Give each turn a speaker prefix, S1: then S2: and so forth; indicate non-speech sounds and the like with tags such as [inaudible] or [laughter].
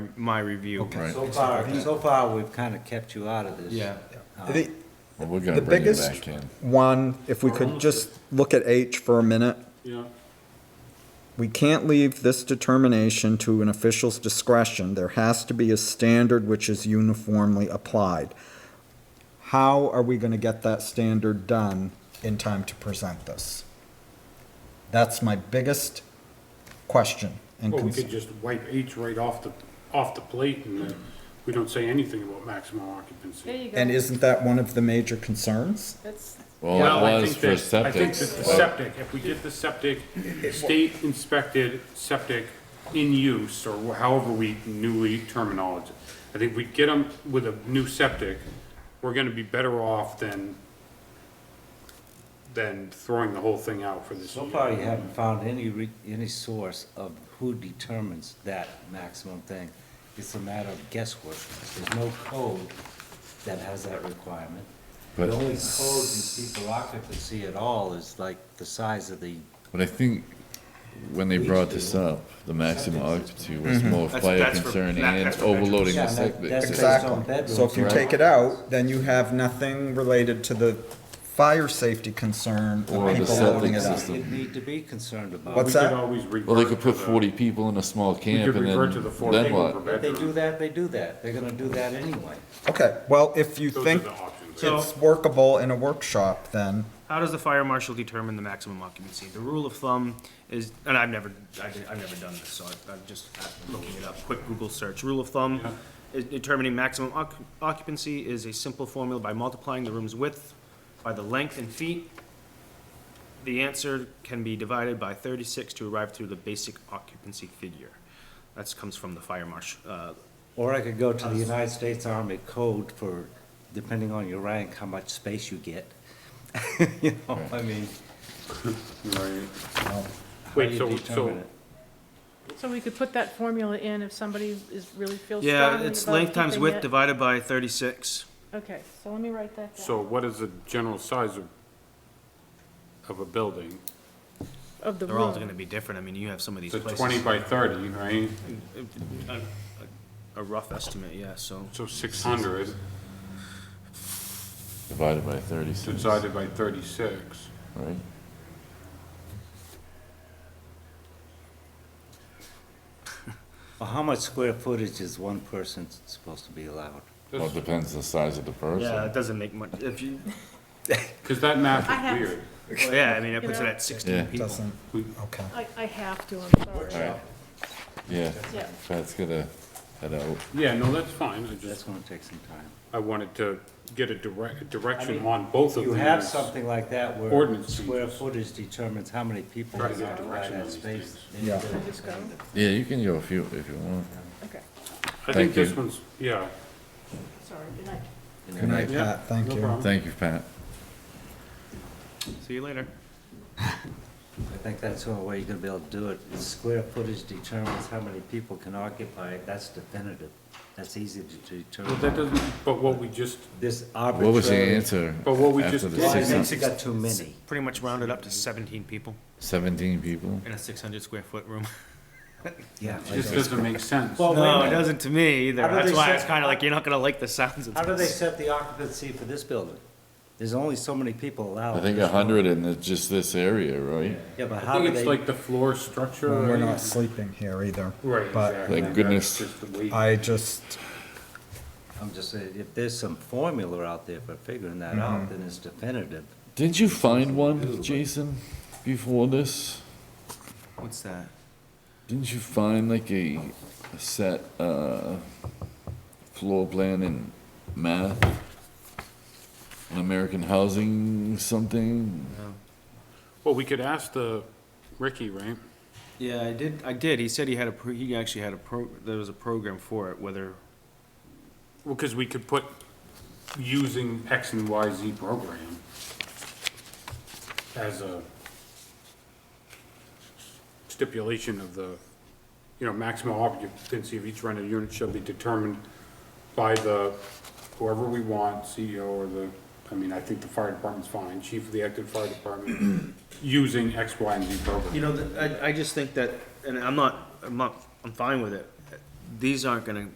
S1: my review.
S2: Right.
S3: So far, so far, we've kind of kept you out of this.
S1: Yeah.
S4: The,
S2: Well, we're
S4: the
S2: gonna bring it
S4: biggest
S2: back in.
S4: one, if we could just look at H for a minute.
S5: Yeah,
S4: We can't leave this determination to an official's discretion. There has to be a standard which is uniformly applied. How are we gonna get that standard done in time to present this? That's my biggest question and
S5: well, we
S4: concern.
S5: could just wipe H right off the, off the plate and then we don't say anything about maximum
S6: There
S5: occupancy.
S6: you go.
S4: And isn't that one of the major concerns?
S6: That's,
S2: Well,
S5: I
S2: it was
S5: think
S2: for
S5: that- I think
S2: septic.
S5: that the septic, if we get the septic, state inspected septic in use, or however we newly terminologize. it, I think we get them with a new septic, we're gonna be better off than, than throwing the whole thing out for this.
S3: So
S5: year.
S3: far, you haven't found any, re- any source of who determines that maximum thing. It's a matter of guesswork. There's no code that has that requirement. The
S2: But-
S3: only code in people occupancy at all is like the size of the,
S2: But I think when they brought this up, the maximum occupancy
S5: Mm-hmm.
S2: was more
S1: That's-
S2: fire
S1: that's for-
S2: concern
S1: that-
S2: and
S1: that's for
S2: overloading the
S3: bedrooms. Yeah, that-
S2: septic.
S3: that's
S2: system.
S3: Exactly. Based on bedrooms,
S4: So if you
S2: right?
S4: take it out, then you have nothing related to the fire safety concern
S2: Or
S4: of
S2: the
S4: people
S2: septic
S4: loading it up.
S2: system.
S3: you'd need to be concerned about.
S4: What's
S5: We
S4: that?
S5: could always revert
S2: Well, they could put
S5: to the-
S2: forty people in a small camp and
S5: revert to the
S2: then,
S5: four
S2: then
S5: people
S2: what?
S5: per-
S3: If they do that, they do that. They're gonna do that anyway.
S4: Okay, well, if you
S5: Those are
S4: think
S5: the options.
S1: So-
S4: it's workable in a workshop, then
S1: How does the fire marshal determine the maximum occupancy? The rule of thumb is, and I've never, I did- I've never done this, so I- I'm just looking it up, quick Google search. Rule of thumb, is determining maximum oc- occupancy is a simple formula by multiplying the room's width by the length in feet. The answer can be divided by thirty-six to arrive through the basic occupancy figure. That comes from the fire marshal, uh,
S3: Or I could go to the United States Army Code for, depending on your rank, how much space you get. [laughs] You know, I mean,
S5: Right.
S3: how do
S5: Wait,
S3: you
S5: so,
S3: determine
S5: so
S3: it?
S6: so we could put that formula in if somebody is really feels strongly about
S1: Yeah,
S6: keeping
S1: it's length times width
S6: it.
S1: divided by thirty-six.
S6: Okay, so let me write that down.
S5: So what is the general size of, of a building?
S6: Of the
S1: They're all gonna
S6: room.
S1: be different. I mean, you have some of these
S5: It's a
S1: places.
S5: twenty by thirty, right?
S1: A rough estimate, yeah, so.
S5: So six hundred
S2: Divided by thirty-six, right?
S5: divided by thirty-six.
S3: Well, how much square footage is one person s- supposed to be allowed?
S2: Well, it depends on the size of the
S1: Yeah,
S2: person.
S1: it doesn't make much, if you,
S5: Cause that
S6: I
S5: math
S6: have-
S5: is weird.
S1: well, yeah, I mean, it
S6: You
S1: puts it
S6: know?
S1: at sixteen
S2: Yeah.
S1: people.
S4: doesn't,
S5: We-
S4: okay.
S6: I, I have to, I'm sorry.
S2: Alright, yeah,
S6: Yeah.
S2: Pat's gonna head out.
S5: Yeah, no, that's fine. I
S3: That's
S5: just,
S3: gonna take some time.
S5: I wanted to get a direct, a
S3: I
S5: direction
S3: mean,
S5: on both of
S3: You
S5: them.
S3: have something like that where
S5: Ordinance
S3: square
S5: changes.
S3: footage determines how many people
S5: Try
S3: are
S5: to get a
S3: allowed
S5: direction on
S3: that
S5: these
S3: space.
S5: things.
S3: Then you
S4: Yeah.
S3: get it.
S6: Just go,
S2: Yeah, you can go a few if you want.
S6: okay,
S5: I think
S2: Thank you.
S5: this one's, yeah.
S6: sorry, good night.
S4: Good night,
S5: Yeah,
S4: Pat, thank
S5: no
S4: you.
S5: problem.
S2: Thank you, Pat.
S1: See you later.
S3: I think that's the only way you're gonna be able to do it, is square footage determines how many people can occupy it, that's definitive. That's easy to
S5: But that
S3: determine.
S5: doesn't, but what we just,
S3: This arbitrary.
S2: What was the answer?
S5: But what we
S2: after
S5: just
S2: the
S5: did-
S3: Well, I
S2: six-
S3: think you got too many.
S1: Pretty much rounded up to seventeen people
S2: Seventeen people?
S1: in a six hundred square foot room.
S3: Yeah.
S5: it just doesn't make sense.
S3: Well,
S1: No, it doesn't to me either.
S3: Oh, How do
S1: That's
S3: they
S1: why
S3: set-
S1: it's kinda like, you're not gonna like the sounds of
S3: How do they
S1: this.
S3: set the occupancy for this building? There's only so many people allowed.
S2: I think a hundred in the- just this area, right?
S3: Yeah, but
S5: I
S3: how
S5: think
S3: do
S5: it's
S3: they,
S5: like the floor structure.
S4: We're
S5: right?
S4: not sleeping here either.
S5: Right,
S4: But
S5: exactly.
S2: Thank goodness.
S5: That's just the way-
S4: I just,
S3: I'm just saying, if there's some formula out there for figuring that
S5: Mm-hmm.
S3: out, then it's definitive.
S2: Didn't you find one, Jason, before this?
S1: What's that?
S2: Didn't you find like a a set, uh, floor plan in math? An American housing something?
S5: Well, we could ask the Ricky, right?
S1: Yeah, I did, I did. He said he had a, pro- he actually had a pro, there was a program for it, whether,
S5: Well, because we could put using X and Y Z program as a stipulation of the, you know, maximum occupancy of each rented unit shall be determined by the, whoever we want, CEO or the, I mean, I think the fire department's fine, chief of the active fire department, [clears throat] using X, Y, and Z program.
S1: You know, th- I, I just think that, and I'm not, I'm not, I'm fine with it. these aren't gonna